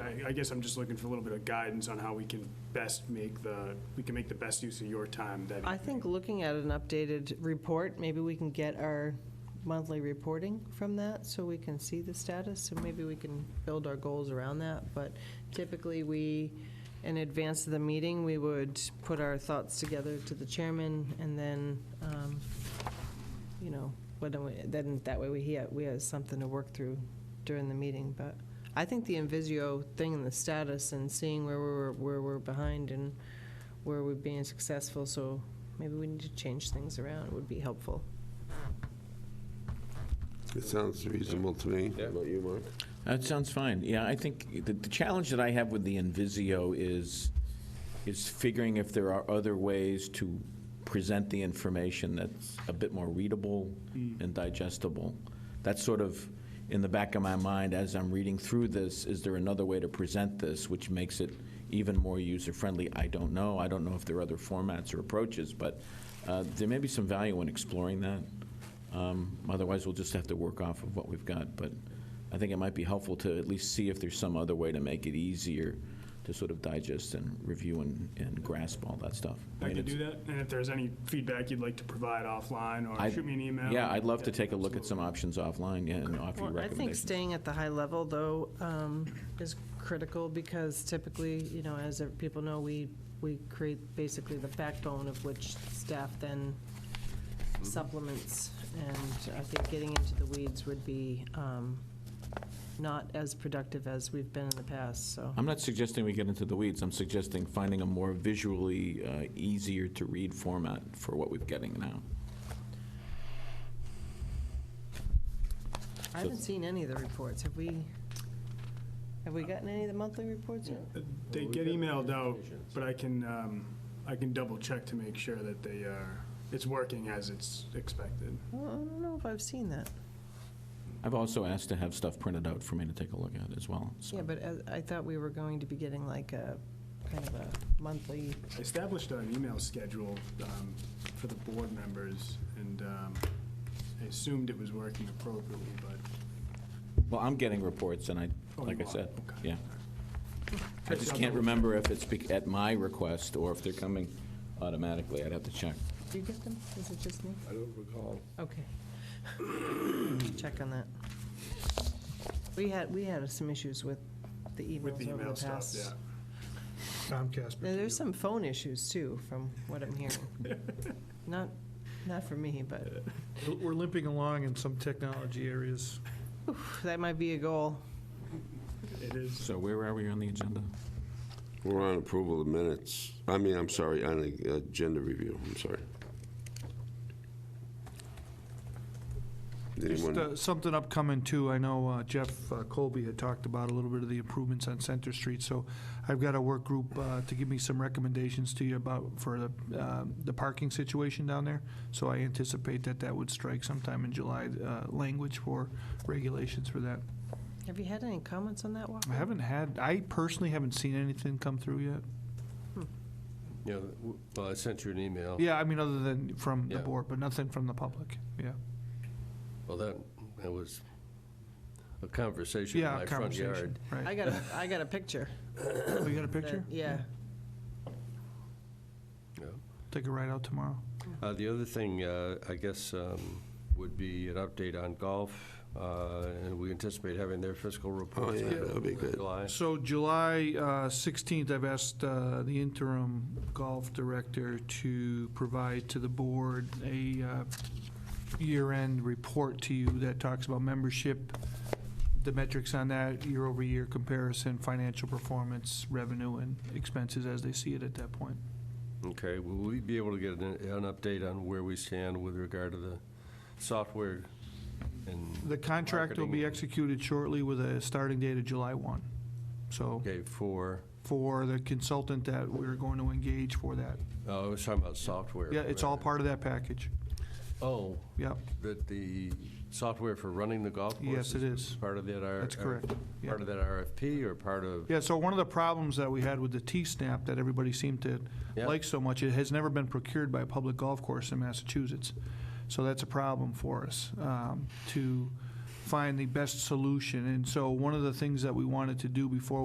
I I guess I'm just looking for a little bit of guidance on how we can best make the, we can make the best use of your time that I think looking at an updated report, maybe we can get our monthly reporting from that so we can see the status and maybe we can build our goals around that. But typically, we, in advance of the meeting, we would put our thoughts together to the chairman and then, um, you know, what do we- then that way we, he- we have something to work through during the meeting. But I think the Invisio thing and the status and seeing where we're, where we're behind and where we're being successful, so maybe we need to change things around, would be helpful. It sounds reasonable to me. How about you, Mark? That sounds fine. Yeah, I think the, the challenge that I have with the Invisio is, is figuring if there are other ways to present the information that's a bit more readable and digestible. That's sort of in the back of my mind as I'm reading through this, is there another way to present this which makes it even more user-friendly? I don't know. I don't know if there are other formats or approaches, but uh, there may be some value in exploring that. Um, Otherwise, we'll just have to work off of what we've got, but I think it might be helpful to at least see if there's some other way to make it easier to sort of digest and review and, and grasp all that stuff. I mean, can do it's- that. And if there's any feedback you'd like to provide offline or I'd- shoot me an email. Yeah, I'd love to take a look at some options offline, yeah, and offer you Well, I think recommendations. staying at the high level, though, um, is critical, because typically, you know, as people know, we, we create basically the backbone of which staff then supplements, and I think getting into the weeds would be um, not as productive as we've been in the past, so. I'm not suggesting we get into the weeds, I'm suggesting finding a more visually uh, easier to read format for what we're getting now. I haven't seen any of the reports, have we, have we gotten any of the monthly reports yet? They get emailed out, but I can, um, I can double check to make sure that they are, it's working as it's expected. Well, I don't know if I've seen that. I've also asked to have stuff printed out for me to take a look at as well, so. Yeah, but as- I thought we were going to be getting like a, kind of a monthly, I established an email schedule um, for the board members, and um, I assumed it was working appropriately, but. Well, I'm getting reports, and I, oh, like you I are. said, Okay. yeah. I I'll just double can't check. remember if it's bec- at my request or if they're coming automatically. I'd have to check. do you get them? Is it just me? I don't recall. Okay. Check on that. We had, we had some issues with the With the emails over email the stuff, past. yeah. Comcast. Now, There's some phone issues too, from what I'm hearing. Not, not for me, but We're limping along in some technology areas. that might be a goal. It is. So where are we on the agenda? We're on approval of minutes. I mean, I'm sorry, on a- agenda review, I'm sorry. Did Just Anyone, uh, something upcoming too, I know uh, Jeff uh, Colby had talked about a little bit of the improvements on Center Street, so I've got a work group uh, to give me some recommendations to you about, for the, um, the parking situation down there. So I anticipate that that would strike sometime in July, uh, language for regulations for that. Have you had any comments on that, Walker? I haven't had, I personally haven't seen anything come through yet. Yeah, w- well, I sent you an email. Yeah, I mean, other than from the Yeah. board, but nothing from the public, yeah. Well, that, that was a conversation in Yeah, my front conversation, yard. I right. got a, I got a picture. Oh, you got a picture? Yeah. Yeah. Take it right out tomorrow. Uh, The other thing, uh, I guess, um, would be an update on golf, uh, and we anticipate having their fiscal report. Oh, yeah, in that'd be good. July. So July uh, 16th, I've asked uh, the interim golf director to provide to the board a uh, year-end report to you that talks about membership, the metrics on that, year-over-year comparison, financial performance, revenue, and expenses as they see it at that point. Okay, will we be able to get an an update on where we stand with regard to the software and, The contract will be Marketing. executed shortly with a starting date of July 1. So okay, for, for the consultant that we're going to engage for that. oh, I was talking about software. Yeah, it's all part of that package. Oh, Yep, that the software for running the golf course? Yes, it is. Part of that R- uh, that's correct. Yeah. Part of that RFP or part of? Yeah, so one of the problems that we had with the T-SNAP that everybody seemed to Yeah. like so much, it has never been procured by a public golf course in Massachusetts. So that's a problem for us, um, to find the best solution. And so one of the things that we wanted to do before